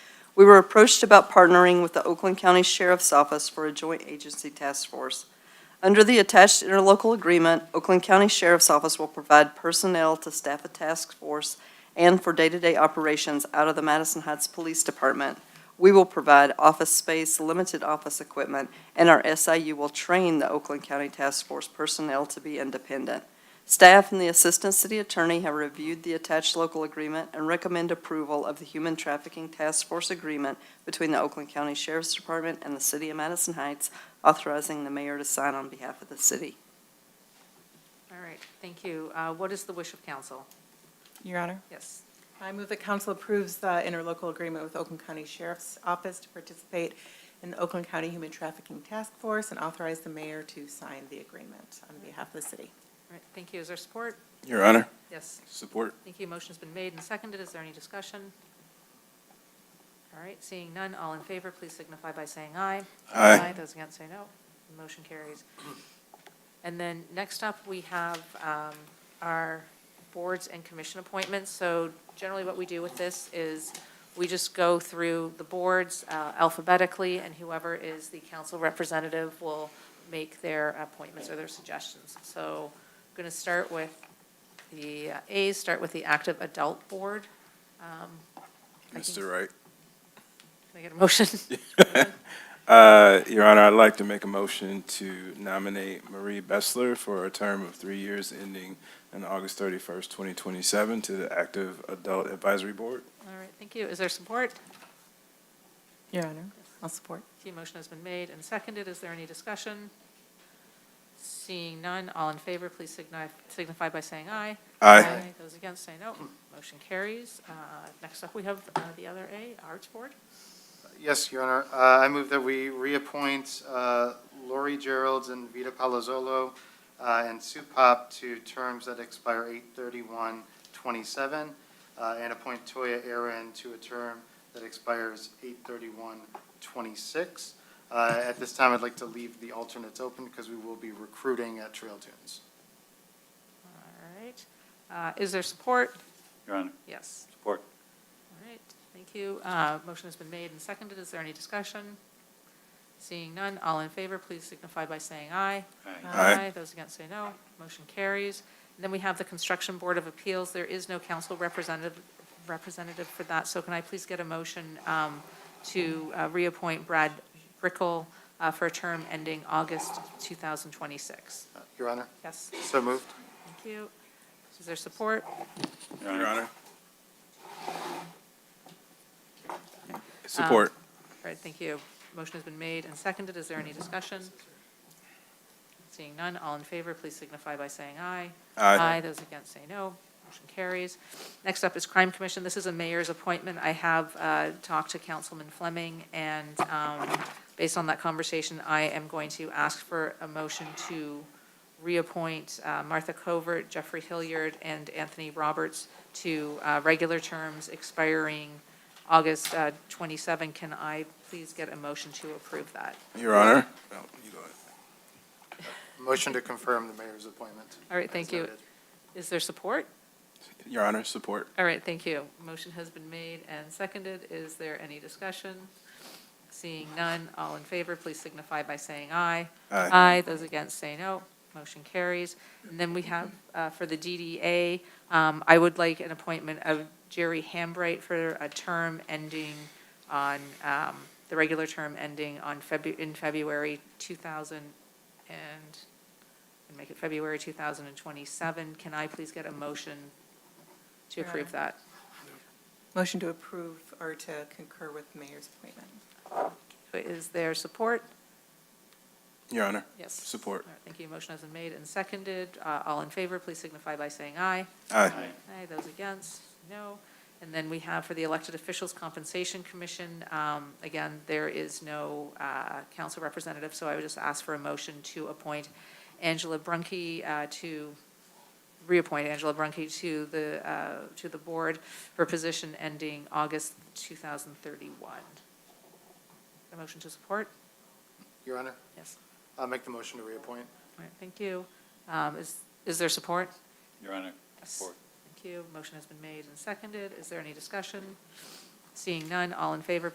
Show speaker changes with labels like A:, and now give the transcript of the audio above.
A: We were approached about partnering with the Oakland County Sheriff's Office for a joint agency task force. Under the attached interlocal agreement, Oakland County Sheriff's Office will provide personnel to staff a task force and for day-to-day operations out of the Madison Heights Police Department. We will provide office space, limited office equipment, and our SIU will train the Oakland County Task Force personnel to be independent. Staff and the Assistant City Attorney have reviewed the attached local agreement and recommend approval of the Human Trafficking Task Force Agreement between the Oakland County Sheriff's Department and the City of Madison Heights, authorizing the mayor to sign on behalf of the city.
B: All right, thank you. Uh, What is the wish of council?
C: Your Honor,
B: Yes.
C: I move that council approves the interlocal agreement with Oakland County Sheriff's Office to participate in the Oakland County Human Trafficking Task Force and authorize the mayor to sign the agreement on behalf of the city.
B: All right, thank you. Is there support?
D: Your Honor,
B: Yes,
D: support.
B: thank you. Motion's been made and seconded. Is there any discussion? All right, seeing none, all in favor, please signify by saying aye.
D: Aye.
B: Those against say no. The Motion carries. And then next up, we have um, our boards and commission appointments. So generally, what we do with this is we just go through the boards uh, alphabetically, and whoever is the council representative will make their appointments or their suggestions. So I'm going to start with the uh, A's, start with the Active Adult Board. I think-
D: Mr. Wright.
B: Can I get a motion?
D: Uh, Your Honor, I'd like to make a motion to nominate Marie Bessler for a term of three years ending on August 31st, 2027 to the Active Adult Advisory Board.
B: All right, thank you. Is there support?
C: Your Honor, I'll support.
B: The motion has been made and seconded. Is there any discussion? Seeing none, all in favor, please signi- signify by saying aye.
D: Aye.
B: Those against say no. Motion carries. Uh, Next up, we have uh, the other A, Arts Board.
E: Yes, Your Honor. Uh, I move that we reappoint uh, Lori Gerolds and Vita Palazzolo uh, and Sue Pop to terms that expire 8/31/27, uh, and appoint Toya Aaron to a term that expires 8/31/26. Uh, At this time, I'd like to leave the alternates open because we will be recruiting at Trail Tunes.
B: All right. Uh, Is there support?
F: Your Honor,
B: Yes.
F: support.
B: All right, thank you. Uh, Motion has been made and seconded. Is there any discussion? Seeing none, all in favor, please signify by saying aye.
F: Aye.
D: Aye.
B: Those against say no. Motion carries. And then we have the Construction Board of Appeals. There is no council representative, representative for that. So can I please get a motion um, to uh, reappoint Brad Brickell uh, for a term ending August 2026?
E: Uh, Your Honor,
B: Yes,
E: so moved.
B: thank you. Is there support?
D: Your Honor. Support.
B: All right, thank you. Motion has been made and seconded. Is there any discussion? Seeing none, all in favor, please signify by saying aye.
D: Aye.
B: Those against say no. Motion carries. Next up is Crime Commission. This is a mayor's appointment. I have uh, talked to Councilman Fleming, and um, based on that conversation, I am going to ask for a motion to reappoint uh, Martha Covert, Jeffrey Hilliard, and Anthony Roberts to uh, regular terms expiring August uh, 27. Can I please get a motion to approve that?
D: Your Honor. No, you go ahead.
E: Motion to confirm the mayor's appointment.
B: All right, thank
E: As
B: you.
E: noted.
B: Is there support?
D: Your Honor, support.
B: All right, thank you. Motion has been made and seconded. Is there any discussion? Seeing none, all in favor, please signify by saying aye.
D: Aye.
B: Those against say no. Motion carries. And then we have, uh, for the DDA, um, I would like an appointment of Jerry Hambright for a term ending on, um, the regular term ending on Febu, in February 2000 and, and make it February 2027. Can I please get a motion to
C: Your
B: approve that?
C: Motion to approve or to concur with mayor's appointment.
B: Is there support?
D: Your Honor,
B: Yes.
D: support.
B: All right, Thank you. Motion has been made and seconded. Uh, All in favor, please signify by saying aye.
D: Aye.
B: Aye, those against, no. And then we have for the Elected Officials Compensation Commission, um, again, there is no uh, council representative, so I would just ask for a motion to appoint Angela Brunke uh, to, reappoint Angela Brunke to the, uh, to the board for position ending August 2031. A motion to support?
E: Your Honor,
B: Yes.
E: I'll make the motion to reappoint.
B: All right, thank you. Um, Is, is there support?
F: Your Honor,
B: Yes.
F: support.
B: Thank you. Motion has been made and seconded. Is there any discussion? Seeing none, all in favor,